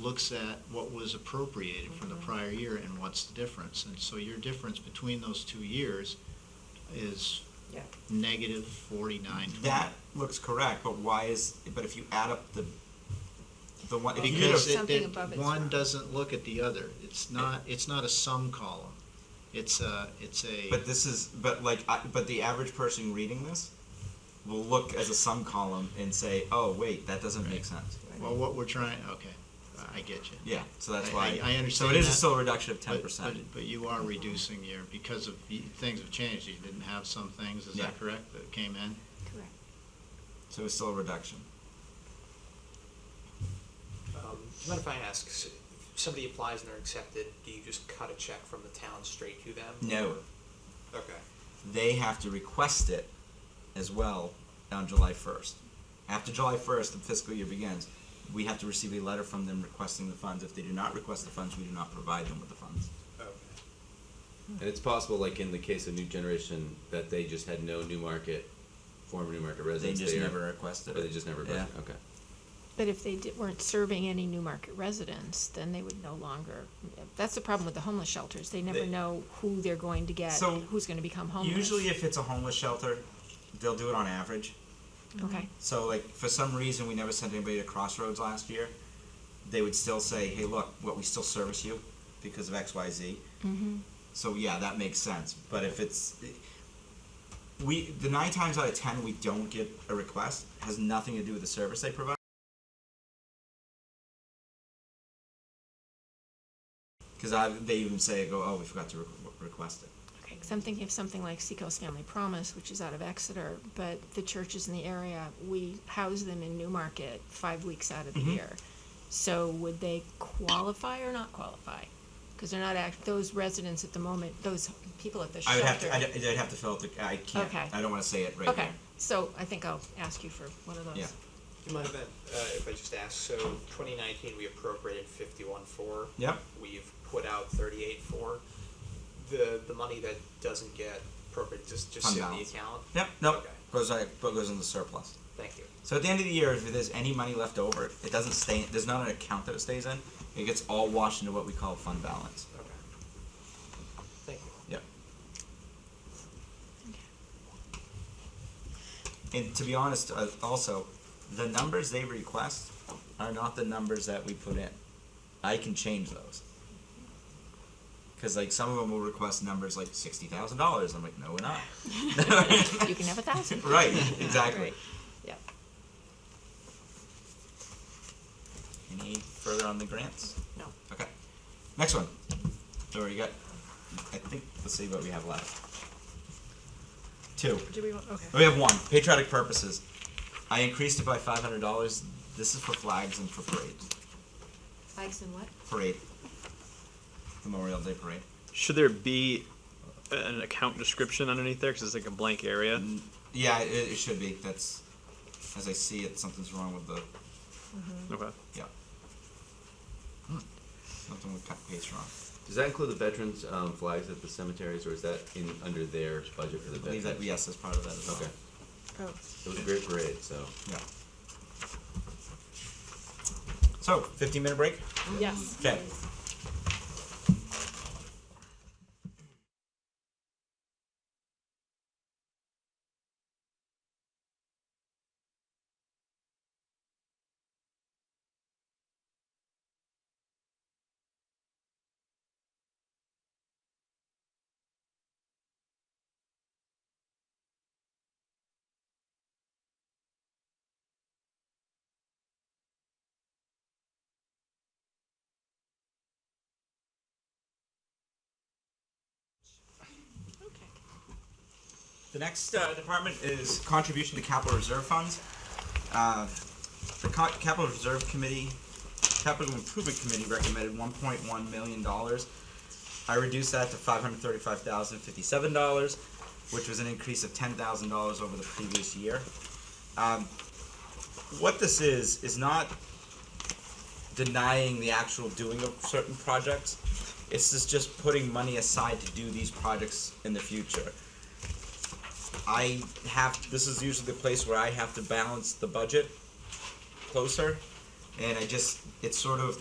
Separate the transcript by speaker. Speaker 1: looks at what was appropriated from the
Speaker 2: Mm-hmm.
Speaker 1: prior year and what's the difference. And so your difference between those two years is
Speaker 2: Yeah.
Speaker 1: negative forty-nine twenty.
Speaker 3: That looks correct, but why is, but if you add up the, the one,
Speaker 2: Well,
Speaker 3: because,
Speaker 1: Because
Speaker 2: Something
Speaker 1: it, it-
Speaker 2: above it's
Speaker 1: one
Speaker 2: not.
Speaker 1: doesn't look at the other. It's not, it's not a sum column. It's a, it's a.
Speaker 3: but this is, but like, I, but the average person reading this will look as a sum column and say, oh, wait, that doesn't make sense.
Speaker 1: Well, what we're trying, okay, I get you.
Speaker 3: Yeah, so that's
Speaker 1: I-
Speaker 3: why.
Speaker 1: I- I
Speaker 3: So
Speaker 1: understand
Speaker 3: it is a
Speaker 1: that,
Speaker 3: still reduction of
Speaker 1: But-
Speaker 3: ten percent.
Speaker 1: but- But you are reducing your, because of, y- things have changed, you didn't have some things, is
Speaker 3: Yeah.
Speaker 1: that correct, that came in?
Speaker 2: Correct.
Speaker 3: So it's still a reduction.
Speaker 4: Um, do you mind if I ask, s- if somebody applies and they're accepted, do you just cut a check from the town straight to them?
Speaker 3: No,
Speaker 4: Okay.
Speaker 3: they have to request it as well on July first. After July first, the fiscal year begins. We have to receive a letter from them requesting the funds. If they do not request the funds, we do not provide them with the funds.
Speaker 4: Okay.
Speaker 5: And it's possible, like in the case of New Generation, that they just had no New Market, former New Market
Speaker 3: They
Speaker 5: residents
Speaker 3: just
Speaker 5: there,
Speaker 3: never requested
Speaker 5: or
Speaker 3: it.
Speaker 5: they just never.
Speaker 3: Yeah.
Speaker 5: Okay.
Speaker 6: But if they di- weren't serving any New Market residents, then they would no longer, that's the problem with the homeless shelters, they never
Speaker 3: They-
Speaker 6: know who they're going to get,
Speaker 3: So,
Speaker 6: who's gonna become homeless.
Speaker 3: Usually, if it's a homeless shelter, they'll do it on average.
Speaker 6: Okay,
Speaker 3: So like for some reason we never sent anybody to Crossroads last year. They would still say, "Hey, look, what we still service you because of X, Y, Z."
Speaker 6: Mm-hmm.
Speaker 3: So yeah, that makes sense. But if it's we the nine times out of ten we don't get a request has nothing to do with the service they provide. Because they even say, "Go, oh, we forgot to re- request it."
Speaker 6: okay, 'cause I'm thinking of something like Seacoast Family Promise, which is out of Exeter, but the churches in the area, we house them in New Market five weeks out of the
Speaker 3: Mm-hmm.
Speaker 6: year. So would they qualify or not qualify? Cause they're not act, those residents at the moment, those people at the
Speaker 3: I
Speaker 6: shelter.
Speaker 3: would have to. I'd, I'd have to fill out the. I can't.
Speaker 6: Okay.
Speaker 3: I don't want to say it right
Speaker 6: Okay,
Speaker 3: here.
Speaker 6: so I think I'll ask you for one of those.
Speaker 3: Yeah.
Speaker 4: Do you mind if I, uh, if I just ask, so twenty nineteen, we appropriated fifty-one four.
Speaker 3: Yep.
Speaker 4: We've put out thirty-eight four. The, the money that doesn't get appropriated, just, just
Speaker 3: Fund
Speaker 4: sit in the
Speaker 3: balance.
Speaker 4: account?
Speaker 3: Yep, nope.
Speaker 4: Okay.
Speaker 3: Goes out, but goes in the surplus.
Speaker 4: Thank you.
Speaker 3: So at the end of the year, if there's any money left over, it doesn't stay. There's not an account that it stays in. It gets all washed into what we call fund balance.
Speaker 4: Okay. Thank you.
Speaker 3: Yep. And to be honest, uh, also, the numbers they request are not the numbers that we put in. I can change those. Cause like some of them will request numbers like sixty thousand dollars. I'm like, no, we're not.
Speaker 6: You can have a thousand.
Speaker 3: Right, exactly.
Speaker 6: Right. Yep.
Speaker 3: Any further on the grants?
Speaker 6: No.
Speaker 3: Okay. Next one. So we got, I think, let's see what we have left. Two.
Speaker 2: Do we want, okay.
Speaker 3: Oh, We have one, patriotic purposes. I increased it by five hundred dollars. This is for flags and for parades.
Speaker 6: Flags and what?
Speaker 3: Parade. Memorial Day parade.
Speaker 7: Should there be an account description underneath there? Because it's like a blank area.
Speaker 3: Yeah, it, it should be. That's, as I see it, something's wrong with the,
Speaker 7: Okay.
Speaker 3: yeah. Hmm. Something with cut paste wrong.
Speaker 5: Does that include the veterans' um, flags at the cemeteries, or is that in under their budget for the
Speaker 3: I believe
Speaker 5: veterans?
Speaker 3: that, yes, that's part of that as well.
Speaker 5: Okay.
Speaker 2: Oh,
Speaker 5: It was a great parade, so.
Speaker 3: Yeah. So, fifteen minute break?
Speaker 2: yes.
Speaker 3: Okay. The next uh, department is contribution to capital reserve funds. Uh, The Co- capital reserve committee, capital improvement committee recommended one point one million dollars. I reduced that to five hundred thirty-five thousand fifty-seven dollars, which was an increase of ten thousand dollars over the previous year. Um, What this is, is not denying the actual doing of certain projects. It's just- just putting money aside to do these projects in the future. I have, this is usually the place where I have to balance the budget closer. And I just, it's sort of